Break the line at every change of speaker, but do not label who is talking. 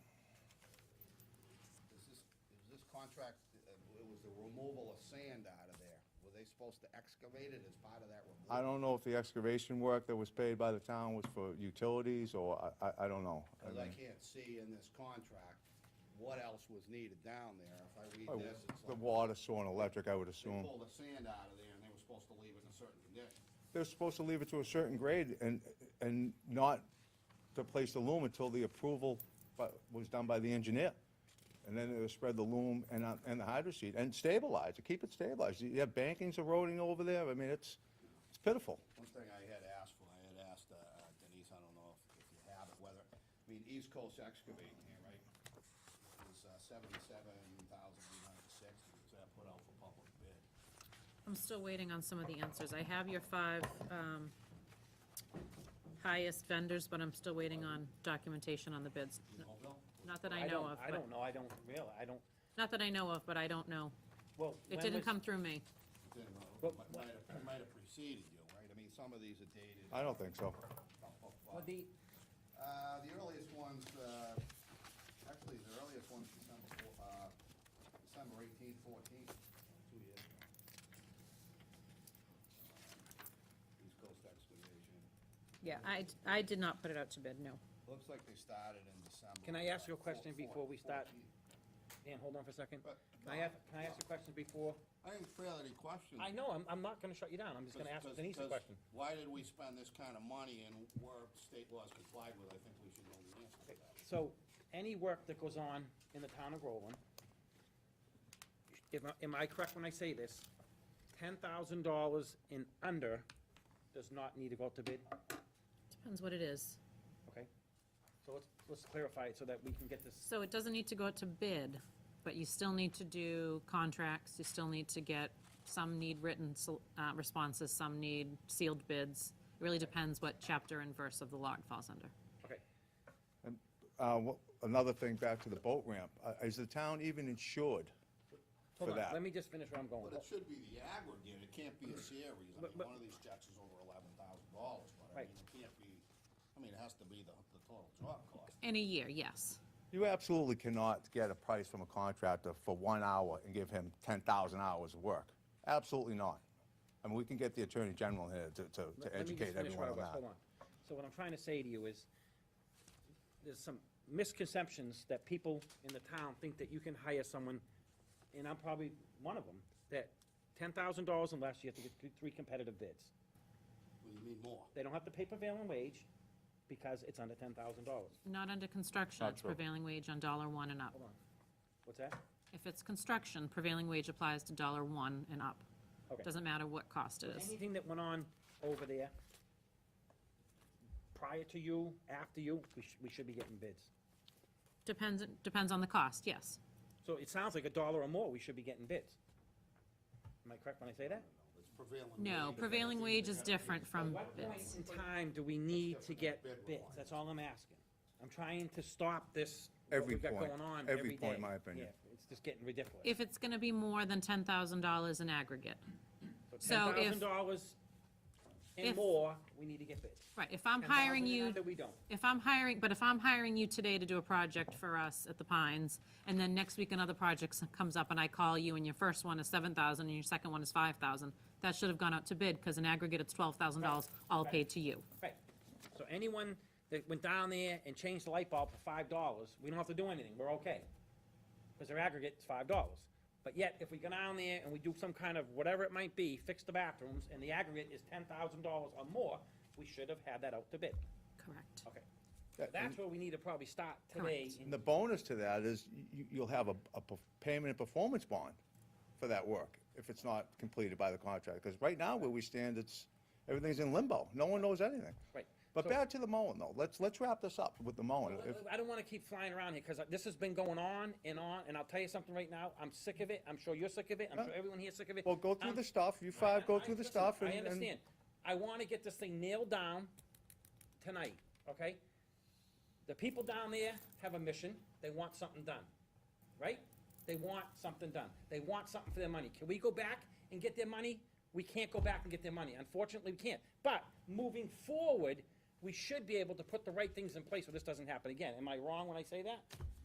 contract, uh, it was the removal of sand out of there. Were they supposed to excavate it as part of that removal?
I don't know if the excavation work that was paid by the town was for utilities, or I, I, I don't know. I
Because I
mean,
can't see in this contract what else was needed down there. If I
oh,
read this, it's
The
like,
water, sewer, and electric, I would
they
assume.
pulled the sand out of there and they were supposed to leave it in a certain condition.
They're supposed to leave it to a certain grade and, and not to place the loom until the approval bu- was done by the engineer. And then they spread the loom and, uh, and the hydro seed and stabilize, to keep it stabilized. You have bankings eroding over there. I mean, it's, it's pitiful.
One thing I had asked for, I had asked uh, uh, Denise, I don't know if, if you have it, whether, I mean, East Coast Excavating here, right? It was uh, seventy-seven thousand eight hundred sixty, was that put out for public bid?
I'm still waiting on some of the answers. I have your five um, highest vendors, but I'm still waiting on documentation on the bids.
Do you know, Bill?
Not that I know
don't-
of,
I
but,
don't know, I don't really, I don't,
not that I know of, but I don't know.
well. when
It didn't
was-
come through me.
Didn't know.
Well,
Might- Might have, it might have preceded you, right? I mean, some of these are dated.
I don't think so.
Well, the,
Uh, the earliest ones, uh, actually, the earliest one's December four, uh, December eighteen fourteen, two years ago. Um, East Coast Excavation,
Yeah, I, I did not put it out to bid, no.
looks like they started in December.
Can I ask you a
uh,
question
four-
before we start?
14.
Dan, hold on for a second.
But-
Can I ask, can I ask a question before?
I didn't fail any questions.
I know, I'm, I'm not gonna shut you down, I'm just gonna
'Cause-
ask Denise a
'cause
question.
Why did we spend this kind of money and were state laws complied with? I think we should know the answer to that.
So, any work that goes on in the town of Groveland, am I, am I correct when I say this? Ten thousand dollars and under does not need to go out to bid,
Depends what it is.
okay? So let's, let's clarify it so that we can get this,
So it doesn't need to go out to bid, but you still need to do contracts, you still need to get, some need written sol- uh, responses, some need sealed bids. It really depends what chapter and verse of the law it falls under.
okay,
Uh, wha- another thing, back to the boat ramp. Uh, is the town even insured for
hold on,
that?
let me just finish where I'm going.
But it should be the aggregate, it can't be a series, I mean,
But- but-
one of these checks is over eleven thousand dollars, but I
Right.
mean, it can't be, I mean, it has to be the, the total job cost.
In a year, yes.
You absolutely cannot get a price from a contractor for one hour and give him ten thousand hours of work. Absolutely not. I mean, we can get the Attorney General here to, to,
Let-
to
let me just
educate
finish
everyone
what I
on
was-
that.
Hold on. So what I'm trying to say to you is, there's some misconceptions that people in the town think that you can hire someone, and I'm probably one of them, that ten thousand dollars and less, you have to get th- three competitive bids.
Well, you need more.
They don't have to pay prevailing wage because it's under ten thousand dollars.
Not under construction,
Not
it's
true.
prevailing wage on dollar one and up.
Hold on. What's that?
If it's construction, prevailing wage applies to dollar one and up.
Okay.
Doesn't matter what cost it is.
Anything that went on over there, prior to you, after you, we should, we should be getting bids.
Depends, depends on the cost, yes.
So it sounds like a dollar or more, we should be getting bids. Am I correct when I say that?
It's prevailing.
No,
wage.
prevailing wage is different from
What point
bids.
in time do we need to get
Bid
bids?
line.
That's all I'm asking. I'm trying to stop this, what
Every
we've got
point.
going on
Every
every day.
point, my opinion.
Yeah, It's just getting ridiculous.
If it's gonna be more than ten thousand dollars in aggregate. so if-
Ten thousand dollars and
if-
more, we need to get bids.
Right, if I'm hiring
$10,000 and
you,
under, we don't.
if I'm hiring, but if I'm hiring you today to do a project for us at the Pines, and then next week another project s- comes up and I call you and your first one is seven thousand and your second one is five thousand, that should have gone out to bid, because in aggregate, it's twelve thousand dollars, all paid to you.
Right. So anyone that went down there and changed the light bulb for five dollars, we don't have to do anything, we're okay. Because their aggregate is five dollars. But yet, if we go down there and we do some kind of, whatever it might be, fix the bathrooms, and the aggregate is ten thousand dollars or more, we should have had that out to bid.
Correct.
Okay. So That's where we need to probably start today.
Correct.
And the bonus to that is you, you'll have a, a perf- payment and performance bond for that work if it's not completed by the contractor. Because right now where we stand, it's, everything's in limbo. No one knows anything.
Right.
But
So-
back to the mowing though. Let's, let's wrap this up with the mowing. If-
I don't wanna keep flying around here, cause this has been going on and on, and I'll tell you something right now, I'm sick of it, I'm sure you're sick of it, I'm sure everyone here's sick of it.
Well, go through
I'm
the stuff. You five, go
I-
through the
listen,
stuff and.
I
and-
understand. I wanna get this thing nailed down tonight, okay? The people down there have a mission, they want something done, right? They want something done, they want something for their money. Can we go back and get their money? We can't go back and get their money, unfortunately, we can't. But moving forward, we should be able to put the right things in place so this doesn't happen again. Am I wrong when I say that?